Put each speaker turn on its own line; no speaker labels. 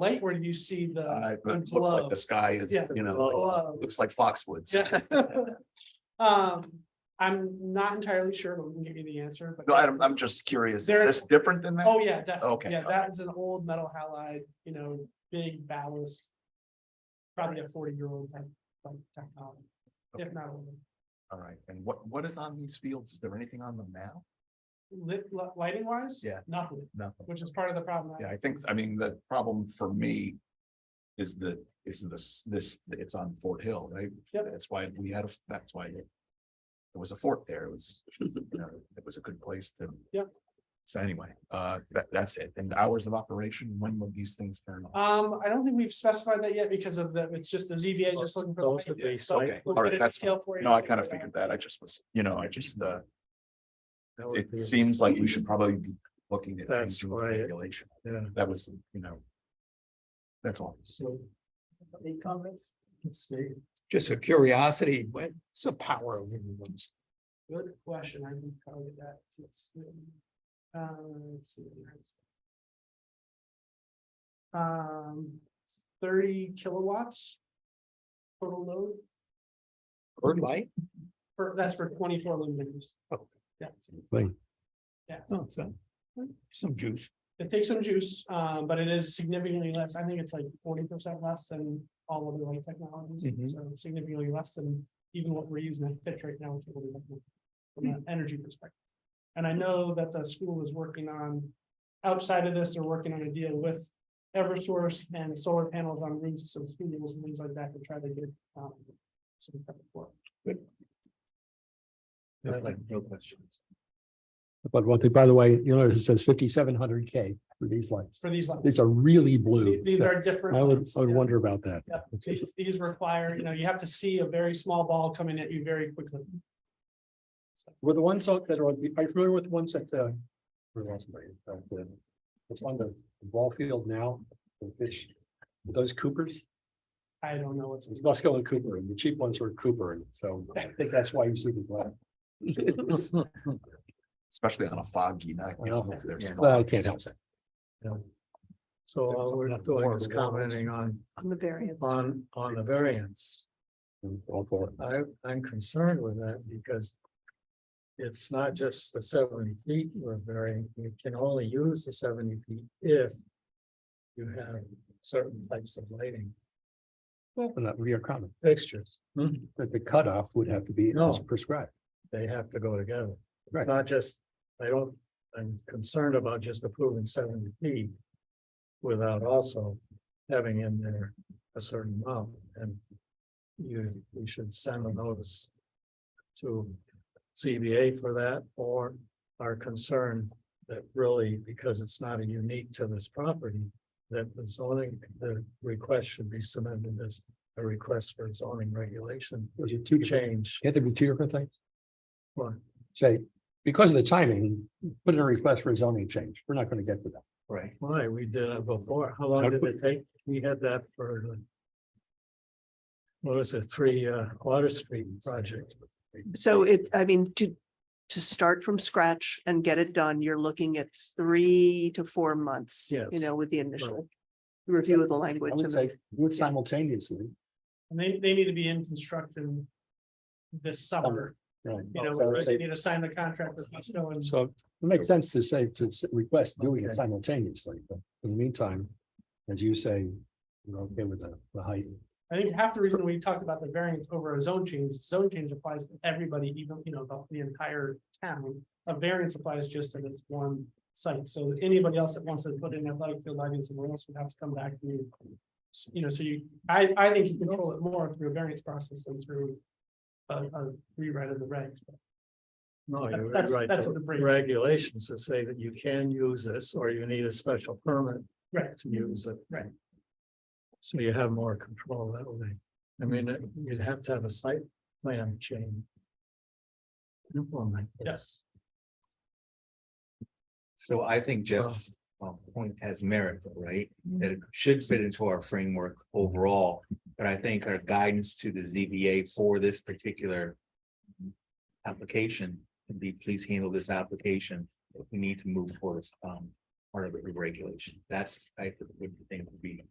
light where you see the
Uh, but it looks like
glow.
the sky is,
Yeah.
you know,
glow.
looks like Foxwoods.
Yeah. Um, I'm not entirely sure, but we can give you the answer, but.
No, I'm, I'm just curious, is
There-
this different than that?
Oh, yeah, definitely.
Okay,
Yeah, that is an old metal halide, you know, big ballast. Probably a forty year old type, like technology, if
Okay.
not older.
All right, and what, what is on these fields? Is there anything on them now?
Lit, li- lighting wise?
Yeah.
Nothing,
Nothing.
which is part of the problem.
Yeah, I think, I mean, the problem for me is the, is this, this, it's on Fort Hill, right?
Yep.
That's why we had, a that's why it there was a fort there. It was, you know, it was a good place to.
Yep.
So anyway, uh, that, that's it. And the hours of operation, when will these things turn off?
Um, I don't think we've specified that yet because of the, it's just the ZBA just looking for. the
Those would
light.
be
So
site-
Okay,
we'll
all
get
right,
a
that's
detail for you.
No, I kind of figured that. I just was, you know, I just, uh,
That would
it
be-
seems like we should probably be looking at.
That's
changing the
right.
Regulation.
Yeah.
That was, you know. That's all.
So. Any comments? Let's see.
just a curiosity, but it's a power of everyone's.
Good question, I can tell you that. since, um, let's see. Um, thirty kilowatts. Total load,
Bird light?
for, that's for twenty-four luminaires.
Okay.
Yeah,
Thing.
Yeah.
Oh, so, some juice.
it takes some juice, um, but it is significantly less, I think it's like forty percent less than all of the light technologies.
Mm-hmm.
Mhm.
So significantly less than even what we're using at Fitch right now, which will be like, from an energy perspective. And I know that the school is working on, outside of this, they're working on a deal with Eversource and solar panels on roofs and schools and things like that to try to get. um, some type of work.
No questions.
But one thing, by the way, you notice it says fifty-seven hundred K for these lights.
For these, levels.
These are really blue.
these are different.
I would,
ones,
I would
yeah.
wonder about that.
Yeah, These, these require, you know, you have to see a very small ball coming at you very quickly.
Were the ones out that are, on the- are you familiar with the ones that, uh, where was it? Uh, the- it's on the ball field now, the fish, those Coopers,
I don't know what's,
it's Musco and Cooper, and the cheap ones were Cooper, and so I think that's why you see the black.
Especially on a foggy night. you know,
Yeah.
it's- there's
Yeah.
fog.
I can't help that.
So all we're doing is commenting on,
On the variance.
on, on the variance.
I'm all for it.
I, I'm concerned with that because. It's not just the seventy feet we're varying, you can only use the seventy feet if. You have certain types of lighting
And that would be our comment,
fixtures,
that the cutoff would have to be
No.
as prescribed.
they have to go together.
Right.
Not just, I don't, I'm concerned about just approving seventy feet. Without also having in there a certain amount and. You, you should send a notice. To CBA for that or are concerned that really, because it's not a unique to this property. That the zoning, the request should be submitted as a request for zoning regulation
Those are two different,
change.
can't there be two different things?
Well,
say, because of the timing, put in a request for a zoning change. We're not gonna get to that.
Right. Why, we did it before. How long did it take? We had that for. the- What was it, three uh Water Street project?
So it, I mean, to, to start from scratch and get it done, you're looking at three to four months.
Yes.
You know, with the initial review of the
I
language. and
would
the-
say, do it simultaneously.
and they, they need to be in construction this summer,
right?
you know,
So I would
whereas they
say-
need to sign the contract with Musco and
So it makes sense to say, to s- request doing
Okay.
it simultaneously, but in the meantime, as you say, we're okay with the, the height.
I think half the reason we talked about the variance over a zone change, zone change applies to everybody, even, you know, the, the entire town. A variance applies just to this one site, so anybody else that wants to put in athletic field lighting somewhere else would have to come back to you. S- You know, so you, I, I think you control it more through a variance process than through a, a rewrite of the regs.
No, you're
That's-
right.
that's
the
what the break-
Regulations that say that you can use this or you need a special permit
Right.
to use it.
Right.
So you have more control that way. I mean, it- you'd have to have a site plan change. Implement.
Yes.
So I
uh,
think Jeff's um, point has merit, though, right?
Mm.
That it should fit into our framework overall, but I think our guidance to the ZBA for this particular application would be, please handle this application. We need to move towards um, part of the regulation. That's, I would think would be